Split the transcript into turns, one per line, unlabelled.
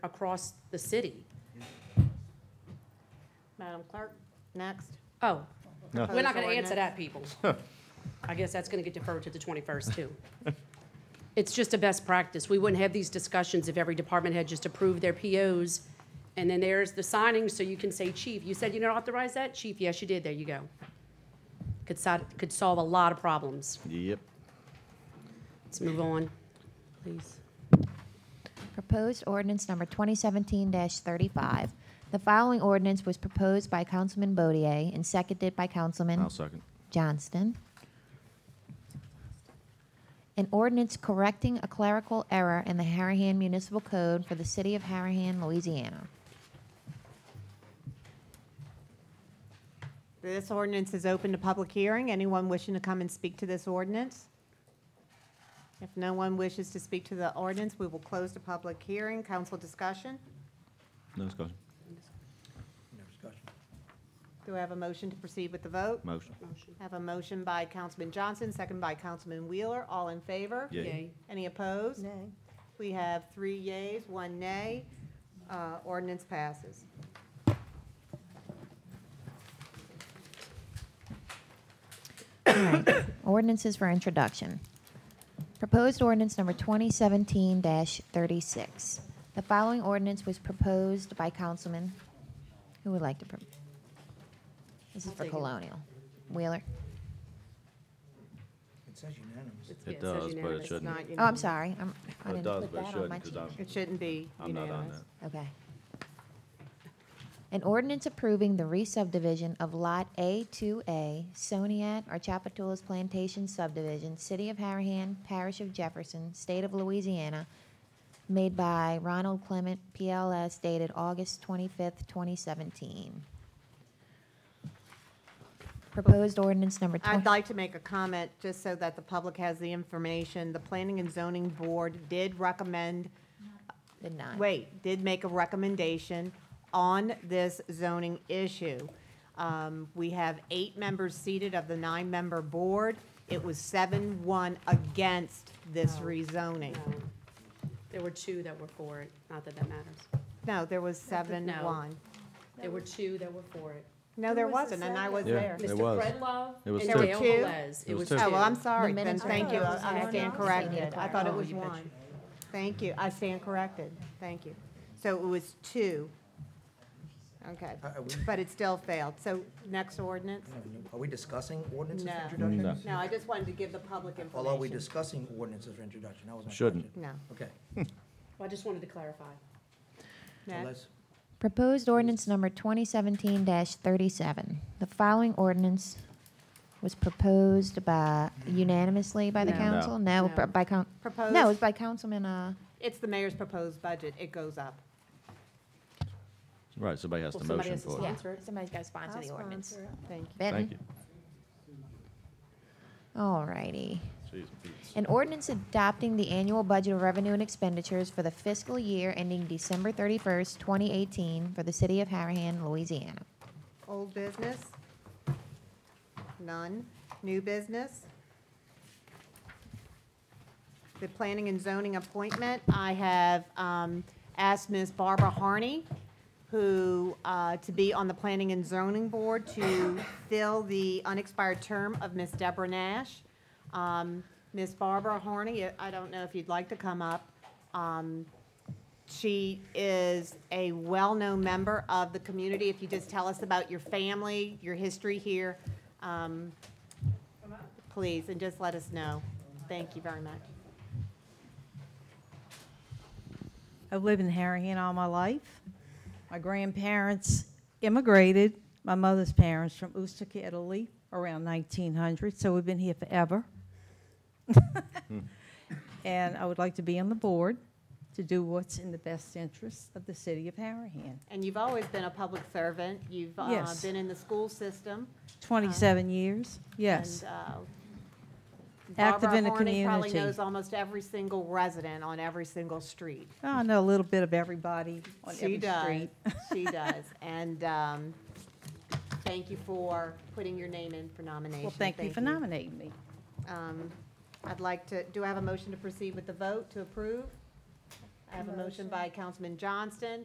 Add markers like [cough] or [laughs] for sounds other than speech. across the city.
Madam Clerk, next.
Oh,
No.
we're not gonna
Proposed
answer that,
[laughs]
people. I guess that's gonna get deferred to the twenty-first, too. It's just a best practice. We wouldn't have these discussions if every department had just approved their POs. And then there's the signing, so you can say, chief, you said you didn't authorize that? Chief, yes, you did. There you go. Could sol, could solve a lot of problems.
Yep.
Let's move on, please.
Proposed ordinance number 2017-35. The following ordinance was proposed by Councilman Bodier and seconded by Councilman
I'll second.
Johnston. An ordinance correcting a clerical error in the Harahan Municipal Code for the City of Harahan, Louisiana.
This ordinance is open to public hearing. Anyone wishing to come and speak to this ordinance? If no one wishes to speak to the ordinance, we will close the public hearing. Council discussion?
No discussion.
No discussion.
Do I have a motion to proceed with the vote?
Motion.
Motion.
I have a motion by Councilman Johnson, second by Councilman Wheeler. All in favor?
Yea.
Yay.
Any opposed? Nay. We have three yays, one nay. Uh, Ordinance passes.
[coughs] Ordinances for introduction. Proposed ordinance number 2017-36. The following ordinance was proposed by Councilman, who would like to, pro- this is
I'll
for
take it.
Colonial. Wheeler.
It says unanimous.
It's- yeah,
It
it says
does, but
unanimous.
it
It's
shouldn't.
Not
Oh, I'm
unanimous.
sorry. I'm- I
It
didn't
does,
put
but it
that on my
shouldn't, because
change.
It shouldn't be
I'm not on
unanimous.
that.
Okay. An ordinance approving the re-subdivision of Lot A2A, Soniat or Chapatoulas Plantation subdivision, City of Harahan, Parish of Jefferson, State of Louisiana, made by Ronald Clement, PLS, dated August 25th, 2017. Proposed ordinance number 20.
I'd like to make a comment, just so that the public has the information. The Planning and Zoning Board did recommend,
Did not.
wait, did make a recommendation on this zoning issue. Um, We have eight members seated of the nine-member board. It was seven-one against this
No,
rezoning.
No. There were two that were for it, not that that matters.
No, there was
no.
seven-one.
There were two that were for it.
No, there wasn't, and I was
Yeah.
there.
It
Mr.
was.
Fred Love
It was
and
two.
Dale
There were two?
Velez.
It was
Oh,
two.
well, I'm sorry,
The
then
minutes-
thank you.
I thought it
I
was
stand
one.
corrected. I thought it
Oh,
was
you bet
one. Thank you. I stand corrected. Thank you. So it was two. Okay.
Are- are we-
But it still failed. So next ordinance?
Are we discussing ordinances
No.
for introduction?
No, I just wanted to give the public
Well, are we
information.
discussing ordinances for introduction? That was my
Shouldn't.
question.
No.
Okay.
Well, I just wanted to clarify.
So
Next.
let's-
Proposed ordinance number 2017-37. The following ordinance was proposed by unanimously by the
No.
council? No,
No.
b- by coun, no, it was
Proposed,
by Councilman, uh,
it's the mayor's proposed budget. It goes up.
Right, somebody has
Well,
to
somebody
motion
has to
for
yeah,
it.
Sponsor it.
somebody's got to sponsor the ordinance.
Thank you.
Benton?
Thank you.
All righty.
Jeez, Pete.
An ordinance adopting the annual budget of revenue and expenditures for the fiscal year ending December 31st, 2018 for the city of Harahan, Louisiana.
Old business? None. New business? The planning and zoning appointment, I have um, asked Ms. Barbara Harney, who, uh, to be on the Planning and Zoning Board to fill the unexpired term of Ms. Deborah Nash. Um, Ms. Barbara Harney, I don't know if you'd like to come up. Um, she is a well-known member of the community. If you just tell us about your family, your history here, um, please, and just let us know. Thank you very much.
I've lived in Harahan all my life. My grandparents immigrated, my mother's parents, from Ustica, Italy, around 1900, so we've been here forever. And I would like to be on the board to do what's in the best interest of the city of Harahan.
And you've always been a public servant. You've uh,
Yes.
been in the school system.
27 years, yes.
And, uh,
Active in the
Barbara Horning probably
community.
knows almost every single resident on every single street.
I know a little bit of everybody on
She
every
does.
street.
[laughs]
[laughs]
She does. And um, thank you for putting your name in for nomination.
Well, thank you for nominating me.
Um, I'd like to, do I have a motion to proceed with the vote to approve? I have a motion by Councilman Johnston,